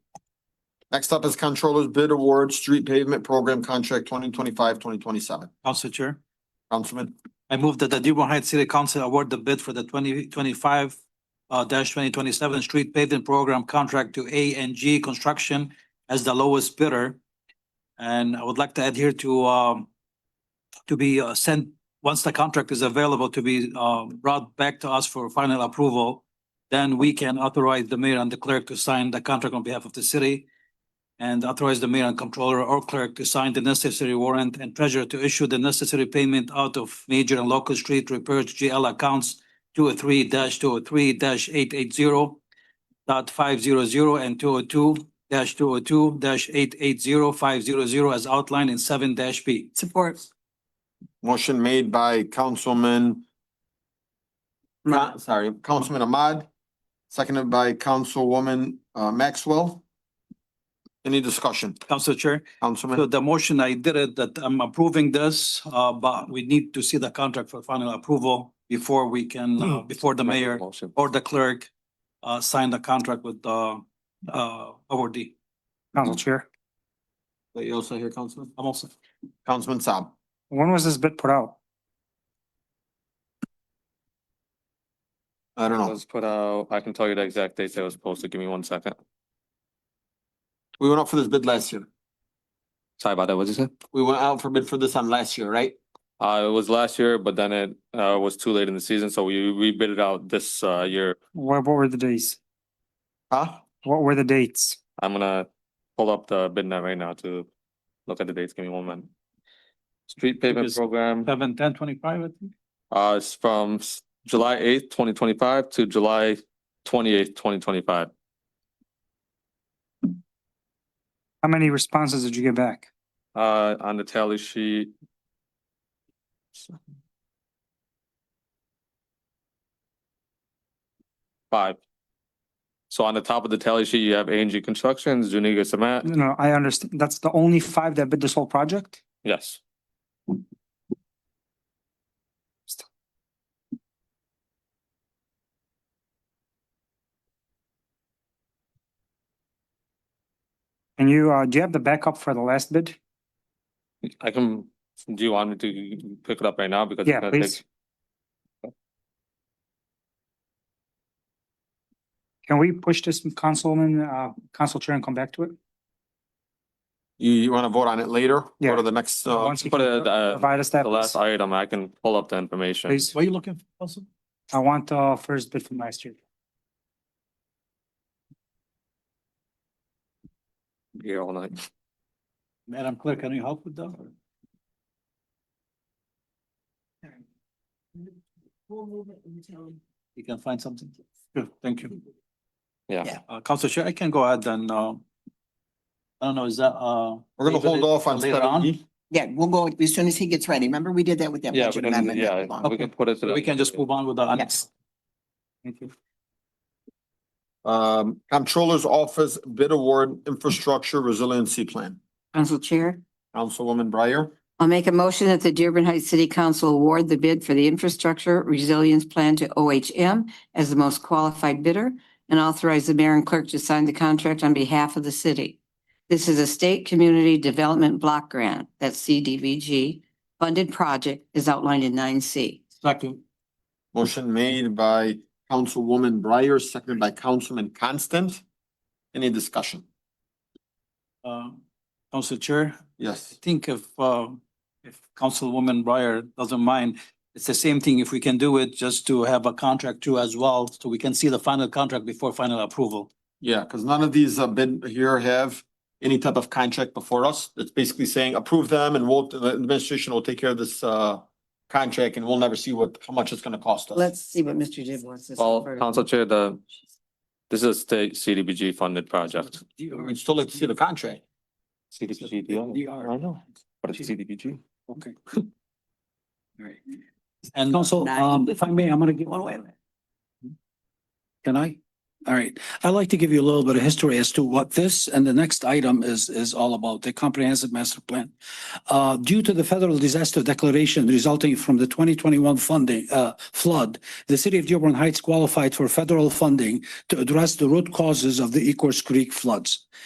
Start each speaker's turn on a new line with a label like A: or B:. A: Next up is Controller's Bid Award Street Pavement Program Contract 2025-2027.
B: Council Chair,
A: Councilman,
B: I move that the Dearborn Heights City Council award the bid for the twenty twenty-five uh, twenty twenty-seven street paving program contract to A and G Construction as the lowest bidder. And I would like to add here to, um, to be uh, sent, once the contract is available, to be, uh, brought back to us for final approval. Then we can authorize the mayor and the clerk to sign the contract on behalf of the city and authorize the mayor and controller or clerk to sign the necessary warrant and treasurer to issue the necessary payment out of major and local street repairs GL accounts two oh three two oh three eight eight zero dot five zero zero and two oh two two oh two eight eight zero five zero zero as outlined in seven B.
C: Support.
A: motion made by Councilman, Ma- sorry, Councilman Ahmad, seconded by Councilwoman uh Maxwell. Any discussion,
B: Council Chair, so
A: Councilman?
B: the motion I did it that I'm approving this, uh, but we need to see the contract for final approval before we can, uh, before the mayor
A: Motion.
B: or the clerk uh sign the contract with the uh awardee.
D: Council Chair,
A: That you also hear, Councilman?
B: I'm also,
A: Councilman Saab.
D: when was this bid put out?
A: I don't know.
E: was put out, I can tell you the exact date that it was posted. Give me one second.
A: We went out for this bid last year.
E: Sorry about that. What did you say?
A: We went out for bid for this on last year, right?
E: Uh, it was last year, but then it, uh, was too late in the season, so we, we bid it out this, uh, year.
D: What, what were the days?
A: Huh?
D: What were the dates?
E: I'm gonna pull up the bid net right now to look at the dates. Give me one minute. Street pavement
B: is-
E: program,
B: seven, ten, twenty-five, I think.
E: uh, is from s- July eighth, twenty twenty-five to July twenty-eighth, twenty twenty-five.
D: How many responses did you get back?
E: Uh, on the tally sheet. Five. So on the top of the tally sheet, you have A and G Constructions, Zuniga Cement,
D: No, No, I understand. That's the only five that bid this whole project?
E: yes.
D: And you, uh, do you have the backup for the last bid?
E: I can, do you want me to pick it up right now? Because it's
D: Yeah,
E: gonna take-
D: please. Can we push this Councilman, uh, Council Chair and come back to it?
A: You, you wanna vote on it later? Go
D: Yeah.
A: to the next, uh,
D: Once you
E: put
D: can
E: it, uh,
D: Provide us that,
E: The last item, I can pull up the information.
D: please.
B: What are you looking for, Council?
D: I want the first bid from last year.
E: Here all night.
B: Madam Clerk, can you help with that? You can find something? Good, thank you.
E: Yeah.
C: Yeah.
B: Uh, Council Chair, I can go ahead and uh I don't know, is that uh?
A: we're gonna hold off on
B: Later on?
A: seven E.
C: Yeah, we'll go as soon as he gets ready. Remember, we did that with that
E: Yeah, we
C: budget
E: can,
C: amendment. not
E: yeah,
C: too long
E: we
C: ago.
E: can put it to
B: So
E: the.
B: we can just move on with the.
C: Yes.
D: Thank you.
A: Um, Controller's Office Bid Award Infrastructure Resiliency Plan.
F: Council Chair,
A: Councilwoman Breyer,
F: I'll make a motion that the Dearborn Heights City Council award the bid for the Infrastructure Resilience Plan to OHM as the most qualified bidder and authorize the mayor and clerk to sign the contract on behalf of the city. This is a state community development block grant, that's CDVG, funded project is outlined in nine C.
B: Second,
A: motion made by Councilwoman Breyer, seconded by Councilman Constant. Any discussion?
B: uh, Council Chair, I
A: Yes,
B: think if, uh, if Councilwoman Breyer doesn't mind, it's the same thing. If we can do it, just to have a contract too as well, so we can see the final contract before final approval.
A: yeah, because none of these uh bid here have any type of contract before us. It's basically saying approve them and we'll, the administration will take care of this uh contract and we'll never see what, how much it's gonna cost us.
F: Let's see what Mr. Dib wants to say.
E: Well,
F: first.
E: Council Chair, the, this is a state CDBG funded project.
A: We still like to see the contract.
E: CDBG
B: DR.
E: I know, but it's CDBG.
B: Okay. And also,
G: Council, um, if I may, I'm gonna give.
C: Well, wait a minute.
G: Can I? All right, I'd like to give you a little bit of history as to what this and the next item is, is all about, the comprehensive master plan. Uh, due to the federal disaster declaration resulting from the twenty twenty-one funding, uh, flood, the city of Dearborn Heights qualified for federal funding to address the root causes of the Ecorse Creek floods.